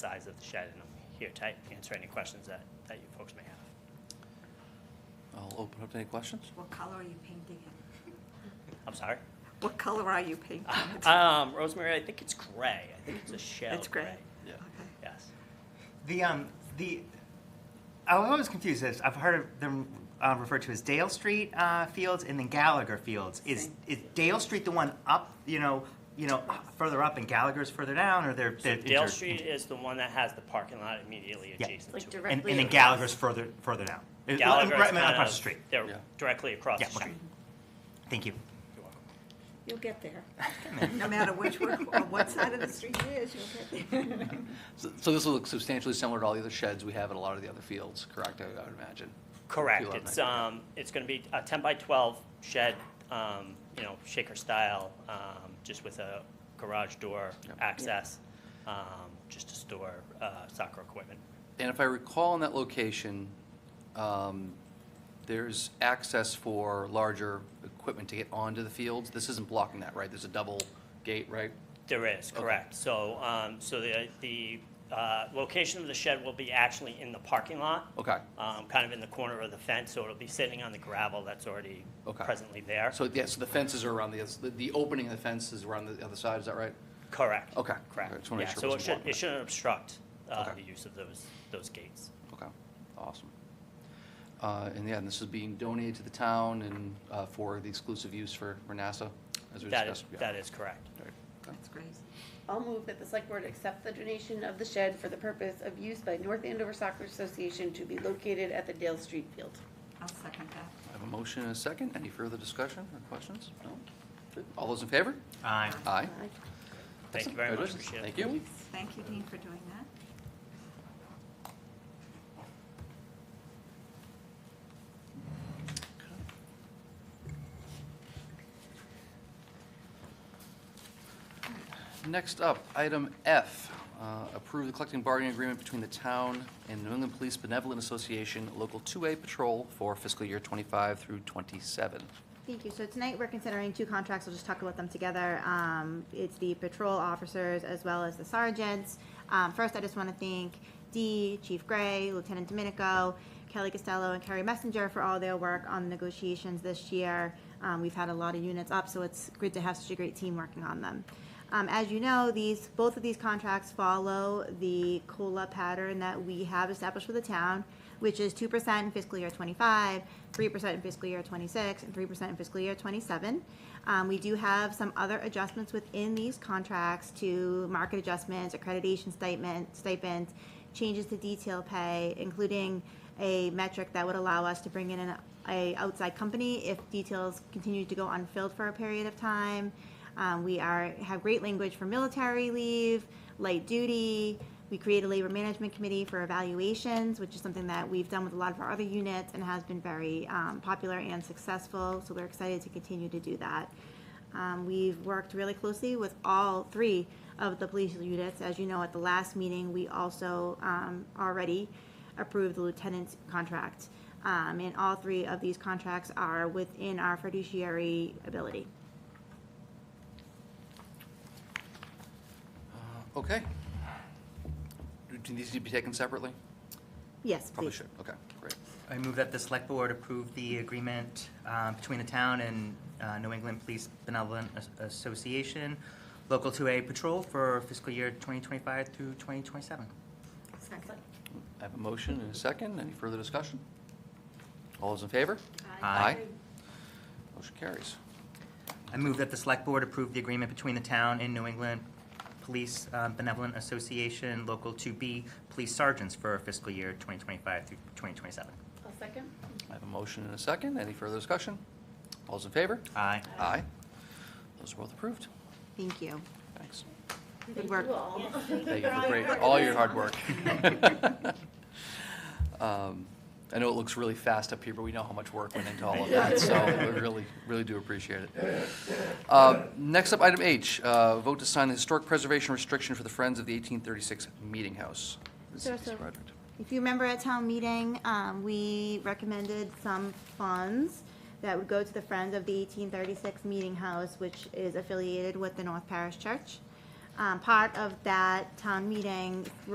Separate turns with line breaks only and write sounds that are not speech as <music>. size of the shed, and I'm here to answer any questions that, that you folks may have.
I'll open up to any questions.
What color are you painting it?
I'm sorry?
What color are you painting
Ah.
it?
Um, Rosemary, I think it's gray. I think it's a shell
It's gray.
Yeah.
Okay.
Yes.
The um the I was always confused. This I've heard of them uh, referred to as Dale Street uh, Fields and then Gallagher Fields. Is
Same.
is Dale Street the one up? You know, you know, uh, further up and Gallagher's further down, or they're,
So
they're
Dale
inter-
Street is the one that has the parking lot immediately
Yeah.
adjacent
Like
to it.
direct-
and, and then
Directly
Gallagher's further further down. Uh,
Gallagher is
right,
kind
across
of-
the street.
Yeah.
They're directly across
Yeah,
the street.
okay. Thank you.
You're welcome.
You'll get there.
No matter which, one- on what side of the street it is, you'll get there.
So so this will look substantially similar to all the other sheds we have at a lot of the other fields, correct, I I would imagine?
Correct.
Feel
It's,
that.
um, it's gonna be a ten by twelve shed, um, you know, shaker style, um, just with a garage door
Yep.
access, um, just to store, uh, soccer equipment.
And if I recall in that location, um, there's access for larger equipment to get onto the fields. This isn't blocking that, right? There's a double gate, right?
There is, correct. So, um, so the, the, uh, location of the shed will be actually in the parking lot.
Okay.
Um, kind of in the corner of the fence, so it'll be sitting on the gravel that's already
Okay.
presently there.
So, yes, the fences are around the, the- the opening of the fences around the other side, is that right?
Correct.
Okay. I
Correct.
just wanna make
Yeah,
sure it
so it
wasn't
should,
blocking
it
that.
shouldn't obstruct, uh,
Okay.
the use of those, those gates.
Okay, awesome. Uh, And yeah, and this is being donated to the town and uh, for the exclusive use for for NASA, as we
That is,
discussed? Yeah.
that is correct.
Right. Okay.
That's great.
I'll move that the select board accept the donation of the shed for the purpose of use by North Andover Soccer Association to be located at the Dale Street Field.
I'll second that.
I have a motion and a second. Any further discussion or questions? No? Good. All those in favor?
Uh,
Aye.
Thank
Aye.
you
Excellent.
very much.
Congratulations.
Appreciate it.
Thank you.
Thank you, Dean, for doing that.
Next up, item F, uh, approve the collective bargaining agreement between the town and New England Police Benevolent Association Local 2A Patrol for fiscal year '25 through '27.
Thank you. So tonight, we're considering two contracts. We'll just talk about them together. Um, It's the patrol officers as well as the sergeants. Um, First, I just want to thank Dee, Chief Gray, Lieutenant Domenico, Kelly Costello, and Carrie Messenger for all their work on negotiations this year. Um, We've had a lot of units up, so it's good to have such a great team working on them. Um, As you know, these, both of these contracts follow the COLA pattern that we have established for the town, which is two percent in fiscal year twenty-five, three percent in fiscal year twenty-six, and three percent in fiscal year twenty-seven. Um, we do have some other adjustments within these contracts to market adjustments, accreditation stipend, stipends, changes to detail pay, including a metric that would allow us to bring in an, a outside company if details continue to go unfilled for a period of time. Um, we are, have great language for military leave, light duty. We create a labor management committee for evaluations, which is something that we've done with a lot of our other units and has been very um, popular and successful. So we're excited to continue to do that. Um, we've worked really closely with all three of the police units. As you know, at the last meeting, we also um, already approved the lieutenant's contract. Um, and all three of these contracts are within our fiduciary ability.
Uh, Okay. Do- Do these need to be taken separately?
Yes, please.
Probably should. Okay, great.
I move that the select board approve the agreement uh, between the town and uh, New England Police Benevolent As- Association, Local 2A Patrol for fiscal year 2025 through 2027.
Second.
I have a motion and a second. Any further discussion? All those in favor?
Aye.
Motion carries.
I move that the select board approve the agreement between the town and New England Police uh, Benevolent Association, Local 2B Police Sergeants for fiscal year 2025 through 2027.
I'll second.
I have a motion and a second. Any further discussion? All those in favor?
Aye.
Aye. Those are both approved.
Thank you.
Thanks.
Good work.
You all.
Thank you
<laughs>
for great, all your hard work. <laughs> Um, I know it looks really fast up here, but we know how much work went into all of that, so we really, really do appreciate it. Uh, Next up, item H, uh, vote to sign the historic preservation restriction for the Friends of the 1836 Meeting House. This
Sure,
is
sir.
Roderick.
If you remember at town meeting, um, we recommended some funds that would go to the Friends of the eighteen thirty-six Meeting House, which is affiliated with the North Parish Church. Um, part of that town meeting